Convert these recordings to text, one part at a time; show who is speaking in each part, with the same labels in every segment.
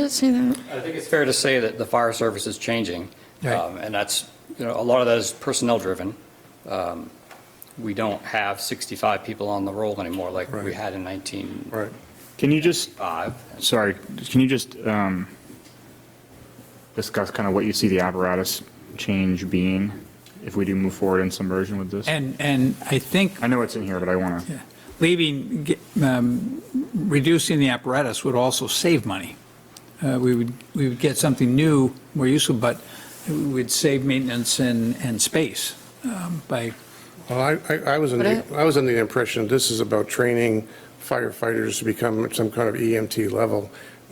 Speaker 1: didn't see that.
Speaker 2: I think it's fair to say that the fire service is changing,
Speaker 3: Right.
Speaker 2: um, and that's, you know, a lot of that is personnel-driven. Um, We don't have 65 people on the roll anymore like we
Speaker 3: Right.
Speaker 2: had in 1995.
Speaker 3: Right.
Speaker 4: Can you just, sorry, can you just um, discuss kind of what you see the apparatus change being if we do move forward in some version with this?
Speaker 3: And, and I think
Speaker 4: I know it's in here, but I want to,
Speaker 3: leaving, ge- um, reducing the apparatus would also save money. Uh, We would, we would get something new, more useful, but we'd save maintenance and, and space um, by,
Speaker 5: Well, I, I- I was in, the- I was under the impression this is about training firefighters to become some kind of EMT level.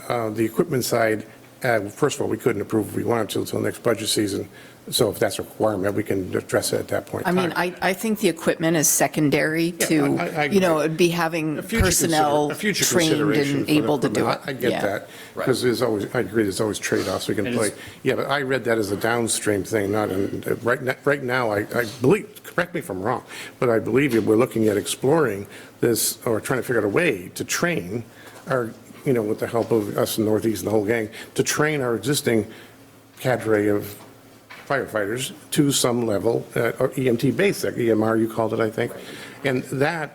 Speaker 5: Uh, The equipment side, uh, first of all, we couldn't approve if we wanted to until next budget season. So if that's a requirement, we can address it at that point. in
Speaker 6: I mean,
Speaker 5: time.
Speaker 6: I, I think the equipment is secondary
Speaker 5: I- I- I
Speaker 6: to,
Speaker 5: agree.
Speaker 6: you know, it'd be having
Speaker 5: A future consider-
Speaker 6: personnel
Speaker 5: a future
Speaker 6: trained
Speaker 5: consideration
Speaker 6: and
Speaker 5: for the
Speaker 6: able to do it.
Speaker 5: equipment. I I get
Speaker 6: Yeah.
Speaker 5: that,
Speaker 2: Right.
Speaker 5: because there's always, I agree, there's always trade-offs we can
Speaker 2: It is-
Speaker 5: play. Yeah, but I read that as a downstream thing, not, in- right now, right now, I I believe, correct me if I'm wrong, but I believe you- we're looking at exploring this, or trying to figure out a way to train our, you know, with the help of us in Northeast and the whole gang, to train our existing cadre of firefighters to some level, uh, or EMT basic, EMR you called it, I think. And that,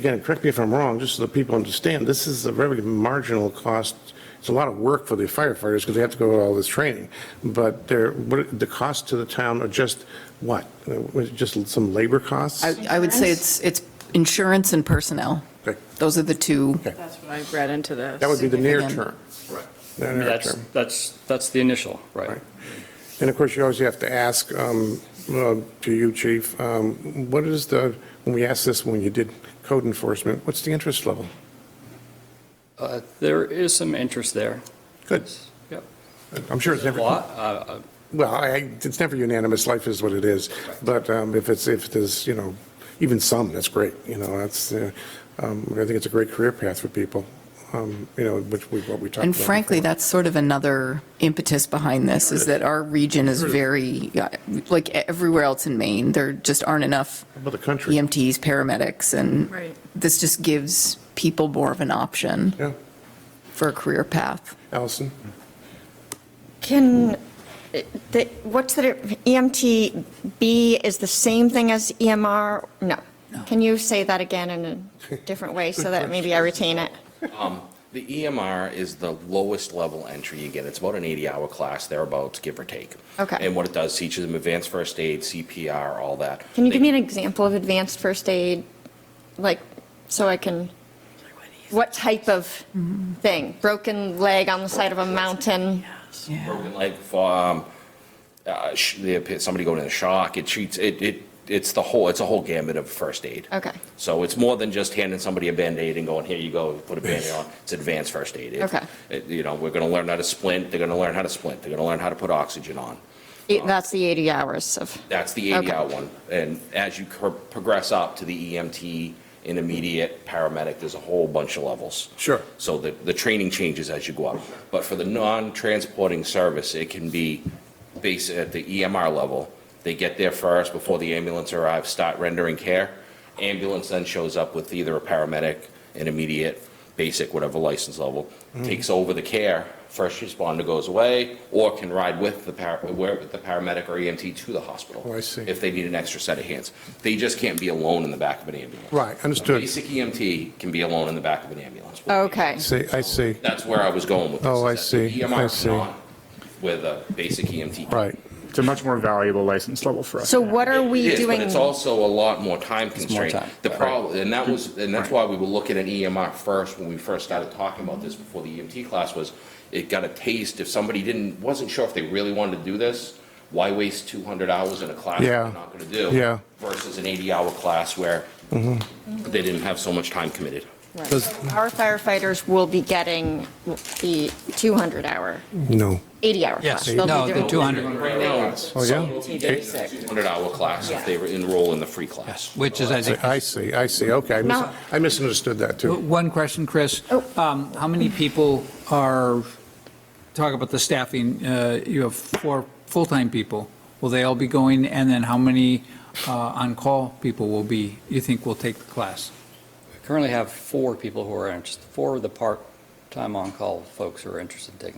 Speaker 5: again, correct me if I'm wrong, just so the people understand, this is a very marginal cost. It's a lot of work for the firefighters because they have to go to all this training. But they're, what, the cost to the town are just what? Uh, was it Just some labor costs?
Speaker 6: I, I would say it's, it's insurance and personnel.
Speaker 5: Okay.
Speaker 6: Those are the two.
Speaker 5: Okay.
Speaker 7: That's what I read into this.
Speaker 5: That would be the near term.
Speaker 6: significant.
Speaker 5: The near
Speaker 2: That's,
Speaker 5: term.
Speaker 2: that's, that's the initial, right?
Speaker 5: Right. And of course, you always have to ask, um, uh, to you, chief, um, what is the, when we asked this when you did code enforcement, what's the interest level?
Speaker 2: Uh, There is some interest there.
Speaker 5: Good.
Speaker 2: Yep.
Speaker 5: I'm sure it's
Speaker 2: A
Speaker 5: never,
Speaker 2: lot,
Speaker 5: well,
Speaker 2: uh, uh,
Speaker 5: I- it's never unanimous, life is what it is. But um, if it's, if there's, you know, even some, that's great, you know, that's, uh, um, I think it's a great career path for people, um, you know, which we, what we talked about.
Speaker 6: And frankly,
Speaker 5: before.
Speaker 6: that's sort of another impetus behind this, is that our region is very, yeah, like e, everywhere else in Maine, there just aren't enough
Speaker 5: How About the country.
Speaker 6: EMTs, paramedics, and
Speaker 7: Right.
Speaker 6: this just gives people more of an option
Speaker 5: Yeah,
Speaker 6: for a career path.
Speaker 5: Allison?
Speaker 8: Can, the- what's the, E EMTB is the same thing as EMR? No. Can you say that again in a different way so that maybe I retain it?
Speaker 9: The EMR is the lowest level entry you get. It's about an 80-hour class, thereabouts, give or take.
Speaker 8: Okay.
Speaker 9: And what it does, teaches them advanced first aid, CPR, all that.
Speaker 8: Can you give
Speaker 9: They-
Speaker 8: me an example of advanced first aid? Like, so I can, what type of thing? Broken leg on the side of a mountain?
Speaker 9: broken leg, for, um, uh, sh- they appear- somebody going into shock, it treats, it, it, it's the whole, it's a whole gamut of first aid.
Speaker 8: Okay.
Speaker 9: So it's more than just handing somebody a Band-Aid and going, here you go, put a Band-Aid on. It's advanced first aid. It-
Speaker 8: Okay.
Speaker 9: it- You know, we're gonna learn how to splint, they're gonna learn how to splint, they're gonna learn how to put oxygen on.
Speaker 8: Eight- That's the 80 hours of,
Speaker 9: That's the
Speaker 8: Okay.
Speaker 9: 80-hour one. And as you cur- progress up to the EMT, intermediate, paramedic, there's a whole bunch of levels.
Speaker 5: Sure.
Speaker 9: So the, the training changes as you go up. But for the non-transporting service, it can be base, at the EMR level. They get there first before the ambulance arrives, start rendering care. Ambulance then shows up with either a paramedic, intermediate, basic, whatever license level,
Speaker 5: Mm-hmm.
Speaker 9: takes over the care. First responder goes away or can ride with the par, where, with the paramedic or EMT to the hospital.
Speaker 5: Oh, I see.
Speaker 9: If they need an extra set of hands. They just can't be alone in the back of an ambulance.
Speaker 5: Right, understood.
Speaker 9: Basic EMT can be alone in the back of an ambulance.
Speaker 8: okay.
Speaker 5: See, I see,
Speaker 9: That's where I was going with this.
Speaker 5: Oh,
Speaker 9: is
Speaker 5: I
Speaker 9: that
Speaker 5: see,
Speaker 9: the EMR
Speaker 5: I
Speaker 9: is
Speaker 5: see.
Speaker 9: not With a basic E EMT.
Speaker 5: right.
Speaker 4: it's a much more valuable license level for us.
Speaker 8: So what are
Speaker 9: It
Speaker 8: we
Speaker 9: is,
Speaker 8: doing?
Speaker 9: But it's also a lot more time
Speaker 2: more
Speaker 9: constraint.
Speaker 2: time.
Speaker 9: The problem, and that was, and that's why we were looking at EMR first when we first started talking about this before the EMT class was, it got a taste, if somebody didn't, wasn't sure if they really wanted to do this, why waste 200 hours in a class that
Speaker 5: Yeah.
Speaker 9: they're not going to do?
Speaker 5: Yeah. Mm-hmm.
Speaker 9: Versus an 80-hour class where they didn't have so much time committed.
Speaker 8: Right. So Our firefighters will be getting the 200-hour,
Speaker 5: No.
Speaker 8: 80-hour
Speaker 3: Yes.
Speaker 8: class. They'll be
Speaker 3: No, the
Speaker 8: doing-
Speaker 3: 200.
Speaker 9: Right now,
Speaker 5: Oh,
Speaker 9: some
Speaker 5: yeah?
Speaker 9: will be getting a 200-hour class if they were enroll in the free class.
Speaker 3: which is, I think,
Speaker 5: I see, I see, okay. I mis-
Speaker 8: No.
Speaker 5: I misunderstood that, too.
Speaker 3: One question, Chris. Um, How many people are, talk about the staffing, uh, you have four full-time people. Will they all be going? And then how many uh, on-call people will be, you think will take the class?
Speaker 2: Currently have four people who are interested, four of the part, time on call folks who are interested in taking